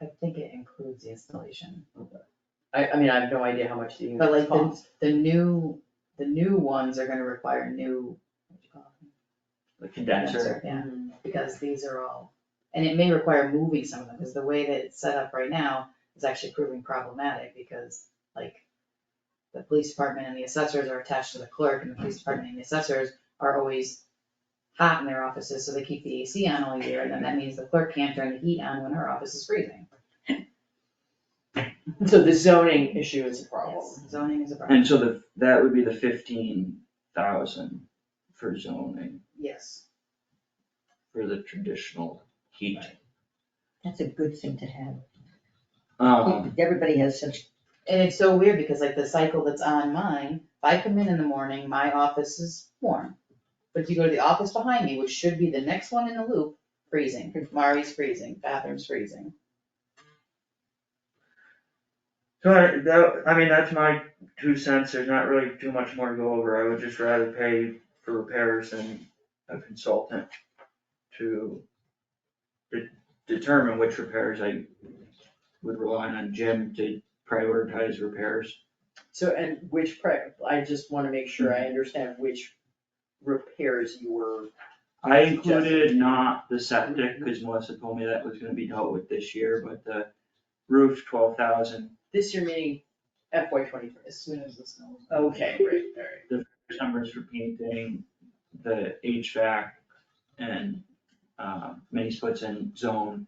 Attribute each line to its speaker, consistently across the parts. Speaker 1: I think it includes the installation,
Speaker 2: I, I mean, I have no idea how much the
Speaker 1: but
Speaker 2: units
Speaker 1: like the,
Speaker 2: cost,
Speaker 1: the new, the new ones are gonna require new, what do you call them?
Speaker 3: the condenser.
Speaker 1: Condenser, Yeah,
Speaker 2: Mm-hmm.
Speaker 1: because these are all, and it may require moving some of them, because the way that it's set up right now is actually proving problematic, because like the police department and the assessors are attached to the clerk, and the police department and the assessors are always hot in their offices, so they keep the AC on all year, and then that means the clerk can't turn the heat on when her office is freezing.
Speaker 2: so the zoning issue is a problem.
Speaker 1: Yes, Zoning is a problem,
Speaker 3: And so the, that would be the fifteen thousand for zoning,
Speaker 1: yes,
Speaker 3: for the traditional heat.
Speaker 4: That's a good thing to have.
Speaker 3: Um,
Speaker 4: Everybody has such,
Speaker 1: and it's so weird, because like the cycle that's on mine, if I come in in the morning, my office is warm. But if you go to the office behind me, which should be the next one in the loop, freezing, Mari's freezing, bathroom's freezing.
Speaker 3: so I, that, I mean, that's my two cents, there's not really too much more to go over, I would just rather pay for repairs than a consultant to de- determine which repairs I would rely on Jim to prioritize repairs.
Speaker 2: So, and which, pri- I just wanna make sure I understand which repairs you were,
Speaker 3: I included not the septic, cause Melissa told me that was gonna be dealt with this year, but the roof, twelve thousand,
Speaker 2: this year meaning FY twenty-three.
Speaker 1: As soon as the snow.
Speaker 2: Okay, great, alright.
Speaker 3: numbers for painting, the HVAC and uh, mini splits and zone,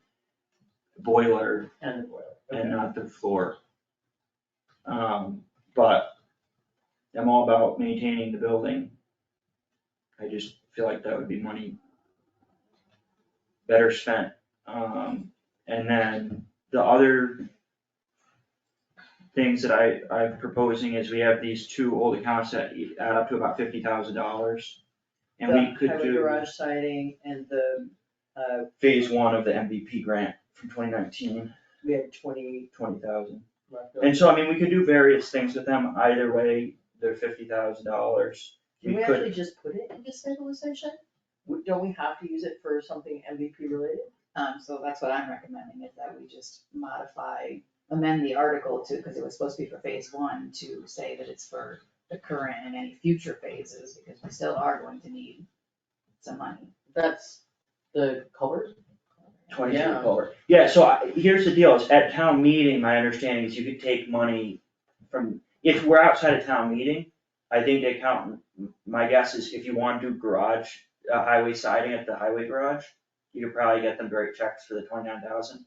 Speaker 3: boiler
Speaker 2: And the boiler,
Speaker 3: and
Speaker 2: okay.
Speaker 3: not the floor. Um, but I'm all about maintaining the building. I just feel like that would be money better spent. Um, and then the other things that I, I'm proposing is we have these two old accounts that add up to about fifty thousand dollars. And we
Speaker 2: The
Speaker 3: could
Speaker 2: highway
Speaker 3: do
Speaker 2: garage siding and the, uh,
Speaker 3: phase one of the MVP grant from twenty nineteen,
Speaker 2: we have twenty
Speaker 3: twenty thousand.
Speaker 2: left over.
Speaker 3: And so, I mean, we could do various things with them, either way, they're fifty thousand dollars.
Speaker 2: Can
Speaker 3: We
Speaker 2: we
Speaker 3: could,
Speaker 2: actually just put it into stabilization? W- Don't we have to use it for something MVP related?
Speaker 1: Um, so that's what I'm recommending, is that we just modify, amend the article to, because it was supposed to be for phase one, to say that it's for the current and any future phases, because we still are going to need some money.
Speaker 2: That's the culvert?
Speaker 3: twenty-three
Speaker 2: Yeah.
Speaker 3: culvert. Yeah, so I, here's the deal, is at town meeting, my understanding is you could take money from, if we're outside of town meeting, I think the accountant, my guess is if you wanna do garage, uh, highway siding at the highway garage, you could probably get them to write checks for the twenty-nine thousand.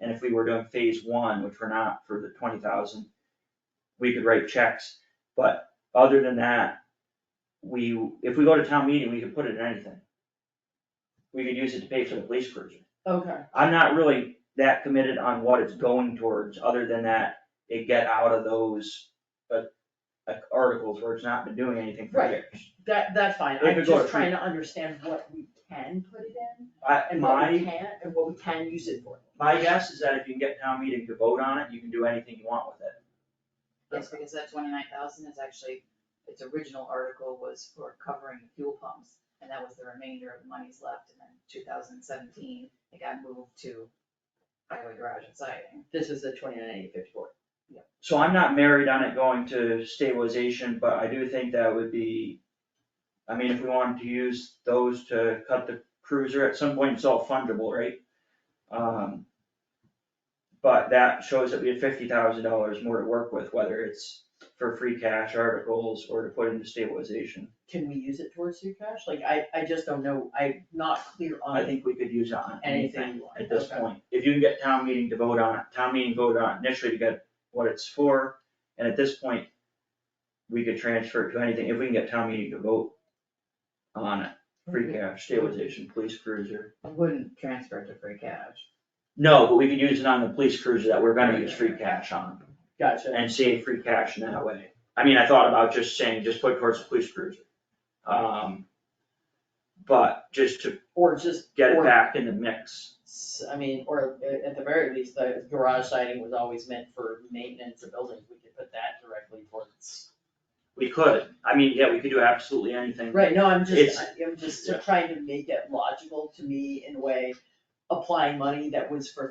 Speaker 3: And if we were doing phase one, which we're not for the twenty thousand, we could write checks, but other than that, we, if we go to town meeting, we could put it in anything. We could use it to pay for the police cruiser.
Speaker 2: Okay,
Speaker 3: I'm not really that committed on what it's going towards, other than that it get out of those uh, uh, articles where it's not been doing anything for
Speaker 2: Right.
Speaker 3: years.
Speaker 2: that, that's fine,
Speaker 3: If
Speaker 2: I'm
Speaker 3: it goes
Speaker 2: just trying to understand what we can put it in
Speaker 3: I,
Speaker 2: and what we
Speaker 3: my,
Speaker 2: can't, and what we can use it for.
Speaker 3: my guess is that if you can get town meeting to vote on it, you can do anything you want with it.
Speaker 1: Yes, because that twenty-nine thousand is actually, its original article was for covering the fuel pumps, and that was the remainder of the monies left, and then two thousand seventeen, it got moved to highway garage and siding.
Speaker 2: This is the twenty-nine eight fifty-four.
Speaker 3: So I'm not married on it going to stabilization, but I do think that would be, I mean, if we wanted to use those to cut the cruiser, at some point it's all fungible, right? Um, but that shows that we had fifty thousand dollars more to work with, whether it's for free cash articles or to put into stabilization.
Speaker 2: Can we use it towards free cash? Like, I, I just don't know, I'm not clear
Speaker 3: I
Speaker 2: on
Speaker 3: think we could use it on anything
Speaker 2: anything you want.
Speaker 3: at this
Speaker 2: Okay.
Speaker 3: point. If you can get town meeting to vote on it, town meeting vote on it initially to get what it's for, and at this point, we could transfer it to anything, if we can get town meeting to vote on it, free cash, stabilization, police cruiser.
Speaker 1: I wouldn't transfer it to free cash.
Speaker 3: No, but we could use it on the police cruiser that we're gonna use free cash on,
Speaker 2: Gotcha,
Speaker 3: and save free cash in that way. I mean, I thought about just saying, just put towards the police cruiser. Um, but just to
Speaker 2: or just,
Speaker 3: get it
Speaker 2: Or-
Speaker 3: back in the mix.
Speaker 2: s- I mean, or a- at the very least, the garage siding was always meant for maintenance of buildings, we could put that directly towards.
Speaker 3: We could, I mean, yeah, we could do absolutely anything.
Speaker 2: Right, no, I'm just,
Speaker 3: It's-
Speaker 2: I'm just
Speaker 3: Yeah.
Speaker 2: trying to make it logical to me in a way, applying money that was for